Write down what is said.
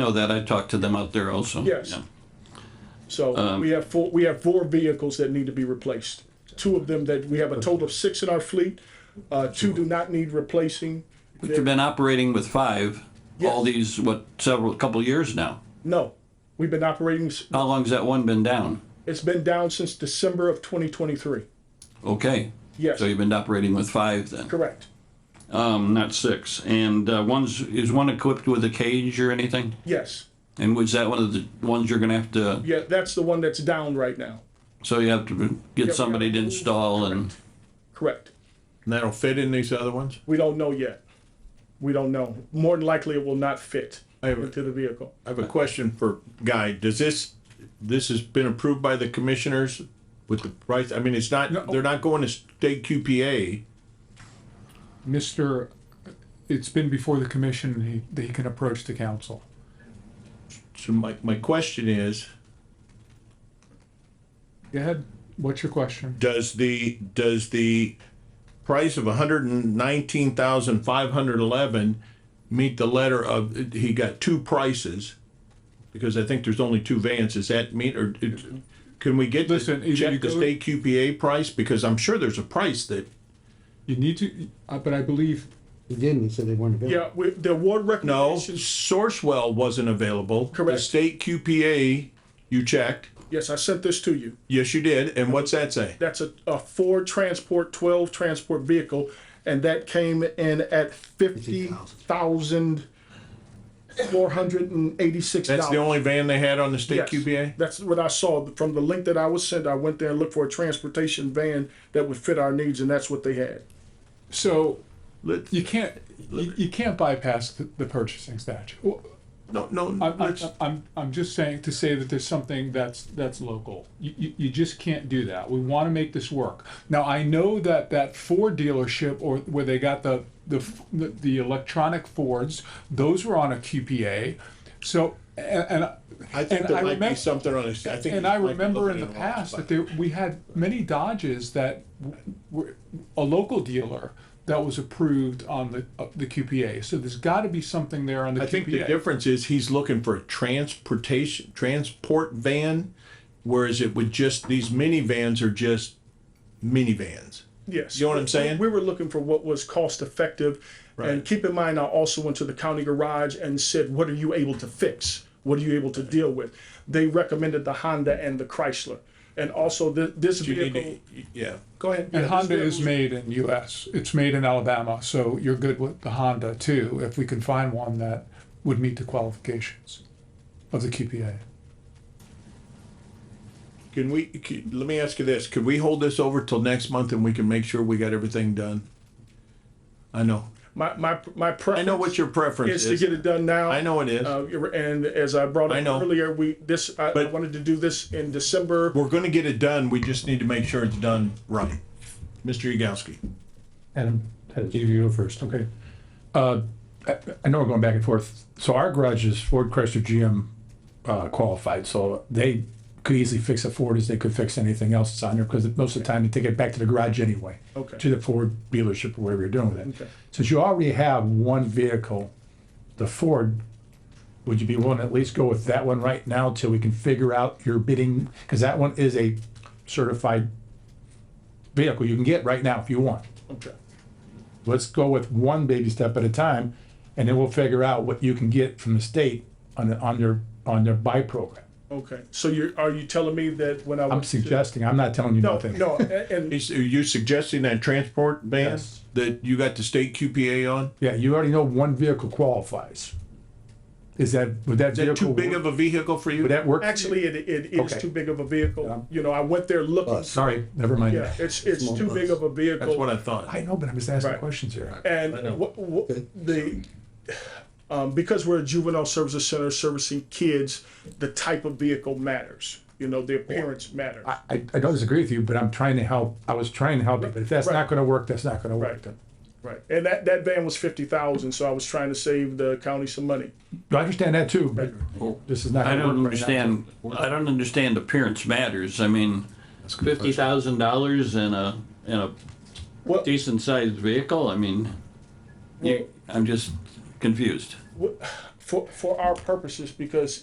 know that, I talked to them out there also. Yes. Yeah. So Um, we have four, we have four vehicles that need to be replaced. Two of them that, we have a total of six in our fleet. Uh, two do not need replacing. But you've been operating with five, all Yes. these, what, several, couple years now. No, we've been operating, s- How long's that one been down? it's been down since December of twenty twenty-three. Okay. Yes. So you've been operating with five then, Correct. um, not six. And, uh, one's, is one equipped with a cage or anything? Yes. And was that one of the ones you're gonna have to, Yeah, that's the one that's down right now. so you have to get somebody to install and, Correct. And that'll fit in these other ones? We don't know yet. We don't know. More than likely, it will not fit I have a- into the vehicle. I have a question for Guy. Does this, this has been approved by the commissioners with the price? I mean, it's not, they're not going to state QPA. Mr., it's been before the commission, and he, that he can approach the council. So my, my question is, Go ahead, what's your question? does the, does the price of hundred and nineteen thousand five hundred eleven meet the letter of, he got two prices? Because I think there's only two vans. Does that meet or it- can we get, Listen, either the- you check the go- state QPA price? Because I'm sure there's a price that You need to, uh, but I believe, He didn't, he said they weren't available. Yeah, we, the award No, recommendations. Sourcewell wasn't available. Correct. The state QPA, you checked. Yes, I sent this to you. Yes, you did. And what's that say? That's a, a Ford Transport 12 transport vehicle, and that came in at fifty thousand four hundred and eighty-six dollars. That's the only van they had on the state QPA? That's what I saw from the link that I was sent. I went there and looked for a transportation van that would fit our needs, and that's what they had. so, Let, you can't, you, you can't bypass the, the purchasing statute. Well, no, no, I'm, I'm, let's, I'm, I'm just saying, to say that there's something that's, that's local. You, you, you just can't do that. We wanna make this work. Now, I know that that Ford dealership or where they got the, the, f- the- the electronic Fords, those were on a QPA. So, and, and. I think and there might be remem- something on this. I think. And you I might be remember in looking the at wrong past spot. that there, we had many Dodges that w- were, a local dealer that was approved on the, uh, the QPA. So there's gotta be something there on the I think the QPA. difference is he's looking for a transportation, transport van, whereas it would just, these minivans are just minivans. Yes. You know what I'm saying? We were looking for what was cost effective. And Right. keep in mind, I also went to the county garage and said, what are you able to fix? What are you able to deal with? They recommended the Honda and the Chrysler. And also thi- this You need to- vehicle, Yeah, go ahead. And Yeah, Honda this is made in US, it's made in Alabama, so you're good with the Honda too, if we can find one that would meet the qualifications of the QPA. Can we, c- let me ask you this, could we hold this over till next month and we can make sure we got everything done? I know, my, my, my I know what preference your preference is to get is, it done now. I know it is. Uh, and as I brought I up know. earlier, we, this, I I But- wanted to do this in December. We're gonna get it done, we just need to make sure it's done right. Mr. Yagowski, Adam, Adam, you you go first. Okay. Uh, I I know we're going back and forth. So our garage is Ford Chrysler GM uh, qualified, so they could easily fix a Ford as they could fix anything else that's on there, because most of the time they take it back to the garage anyway. Okay. To the Ford dealership or whatever you're doing with it. Since you already have one vehicle, the Ford, would you be willing to at least go with that one right now till we can figure out your bidding? Because that one is a certified vehicle you can get right now if you want Okay. let's go with one baby step at a time, and then we'll figure out what you can get from the state on, the- on their, on their buy program. Okay. So you're, are you telling me that when I? I'm went to- suggesting, I'm not telling you No, nothing. no, a- and is, are you suggesting that transport van Yes. that you got the state QPA on? Yeah, you already know one vehicle qualifies. Is that, would that Is that vehicle? too big work- of a vehicle for you? Would that work? Actually, it, it is Okay. too big of a vehicle. You know, I went there looking, Bus. Oh, Sorry, never mind. yeah, it's, it's too big of a That's what vehicle. I thought. I know, but I'm just asking Right. questions here. And what, what, the, um, because we're a juvenile services center servicing kids, the type of vehicle matters. You know, the appearance matters. I, I I don't disagree with you, but I'm trying to help, I was trying to help you, but if that's Right. not gonna work, that's not gonna Right. work. then. Right. And that, that van was fifty thousand, so I was trying to save the county some money. I understand that too, but this is not. I gonna don't work right now. understand, I don't understand appearance matters, I mean, fifty thousand dollars in a, in a Well- decent sized vehicle, I mean, you, I'm just confused. for, for our purposes, because